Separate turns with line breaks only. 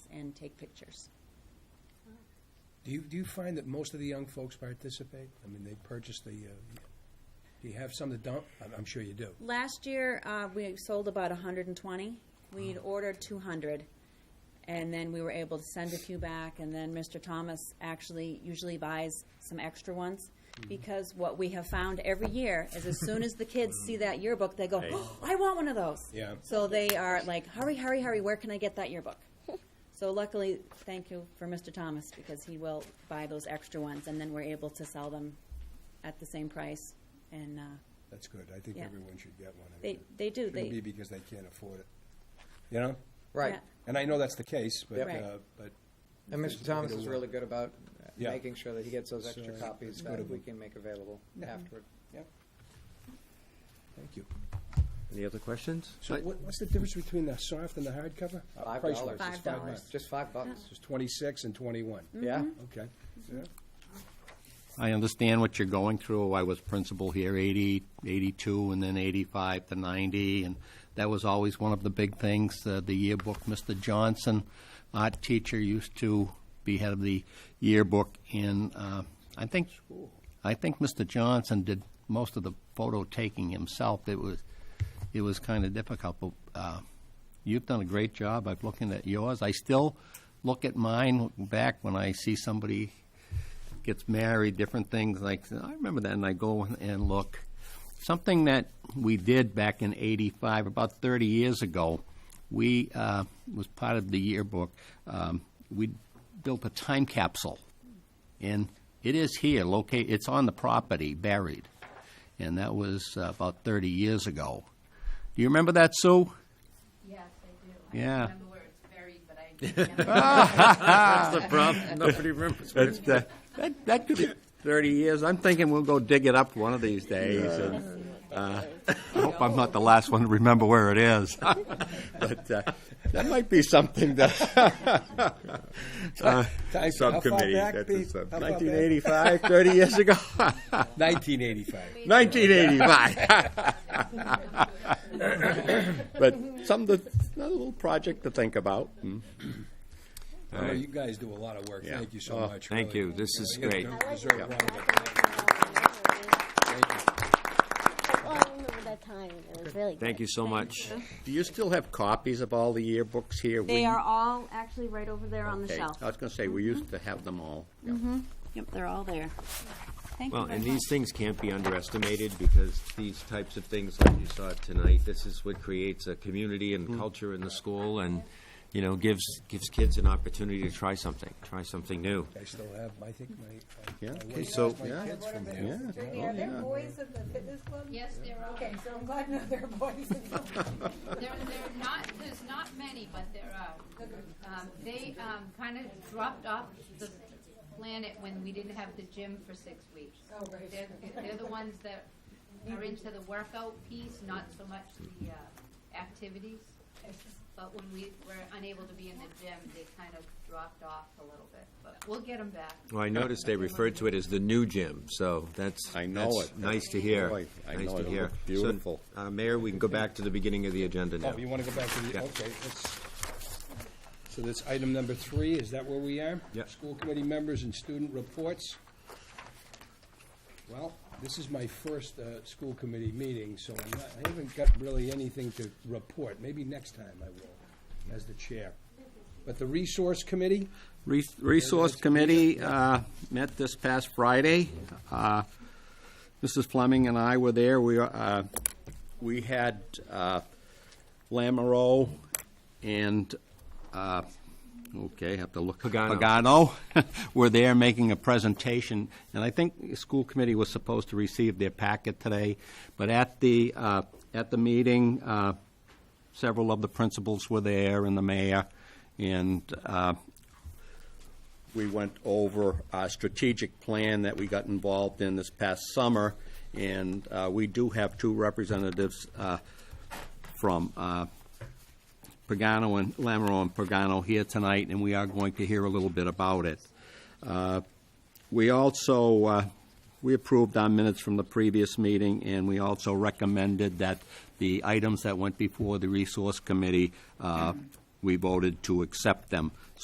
and take pictures.
Do you, do you find that most of the young folks participate? I mean, they purchase the, uh, do you have some that don't? I'm, I'm sure you do.
Last year, uh, we sold about hundred and twenty. We'd ordered two hundred. And then we were able to send a few back, and then Mr. Thomas actually usually buys some extra ones. Because what we have found every year is as soon as the kids see that yearbook, they go, oh, I want one of those.
Yeah.
So they are like, hurry, hurry, hurry, where can I get that yearbook? So luckily, thank you for Mr. Thomas, because he will buy those extra ones, and then we're able to sell them at the same price. And, uh,
That's good. I think
Yeah.
everyone should get one. I
They,
mean,
they do.
It shouldn't be
They,
because they can't afford it, you know?
Right.
yeah.
And I know that's the case, but,
Yep.
Right.
uh, but
And Mr. Thomas is
Yeah.
really good about
Yeah.
making sure that he gets those extra
So,
copies
it's good
that
of
we
him.
can make available afterward.
Thank you.
Any other questions?
So what, what's the difference between the soft and the hardcover? Uh,
Five
price-wise,
dollars.
it's
Five dollars.
bucks.
Just five bucks.
It's twenty-six and twenty-one.
Yeah?
Okay. Yeah.
I understand what you're going through. I was principal here 80, 82, and then 85 to 90, and that was always one of the big things. Uh, the yearbook, Mr. Johnson, art teacher, used to be head of the yearbook, and uh, I think I think Mr. Johnson did most of the photo taking himself. It was it was kind of difficult, but uh, you've done a great job. I've looking at yours. I still look at mine back when I see somebody gets married, different things like I remember that, and I go and look. Something that we did back in '85, about 30 years ago, we uh, was part of the yearbook. Um, we built a time capsule, and it is here, locate. It's on the property, buried, and that was uh, about 30 years ago. Do you remember that, Sue?
Yes, I do.
Yeah.
I don't remember where it's buried, but I.
That's the problem. Nobody remembers. that,
uh,
that could be 30 years. I'm thinking we'll go dig it up one of these days. and, uh,
I hope I'm not the last one to remember where it is. but uh, that might be something that
Time- how far
subcommittee.
back,
That's
Pete?
a sub-
How far back?
1985, 30 years ago.
1985.
1985. but some the, another little project to think about. Hmm.
I know you guys do a lot of work.
Yeah.
Thank you so
Oh,
much.
thank
really.
you. This is
You
great.
deserve
Yeah.
credit.
Oh, I remember that time. It was really good.
Thank you so much.
Do you still have copies of all the yearbooks here?
They
We-
are all actually right over there on the
Okay.
shelf.
I
Uh,
was going to say, we used to have them all. Yeah.
Yep, they're all there. Thank
Well,
you very
and these
much.
things can't be underestimated because these types of things, like you saw tonight, this is what creates a community
Mm.
and culture in the school and, you know, gives, gives kids an opportunity to try something, try something new.
I still have, I think, my,
Yeah.
I went
So-
past my
yeah.
kids from there.
Are there boys in the fitness club?
Yes, there are.
Okay, so I'm glad to know there are boys in the
There, there are not, there's not many, but there are. Um, they, um, kind of dropped off the planet when we didn't have the gym for six weeks.
Oh, right.
They're, they're the ones that are into the workout piece, not so much the, uh, activities. But when we were unable to be in the gym, they kind of dropped off a little bit, but we'll get them back.
Well, I noticed they referred to it as the new gym, so that's,
I know
that's
it.
nice to hear.
Boy, I
Nice
know
to
it. It
hear.
looked
So,
beautiful.
uh, Mayor, we can go back to the beginning of the agenda now.
Oh, you want to go back to the,
Yeah.
okay, let's, so that's item number three, is that where we are?
Yeah.
School committee members and student reports. Well, this is my first, uh, school committee meeting, so I'm not, I haven't got really anything to report. Maybe next time I will, as the chair. But the resource committee,
Re- Resource Committee uh, met this past Friday. Uh, Mrs. Fleming and I were there. We, uh, we had uh, Lamoureux and, uh, okay, have to look.
Pagano.
Pagano were there making a presentation, and I think the school committee was supposed to receive their packet today, but at the, uh, at the meeting, uh, several of the principals were there and the mayor, and uh, we went over our strategic plan that we got involved in this past summer, and uh, we do have two representatives uh, from uh, Pagano and Lamro and Pagano here tonight, and we are going to hear a little bit about it. Uh, We also, uh, we approved our minutes from the previous meeting, and we also recommended that the items that went before the Resource Committee, uh, we voted to accept them.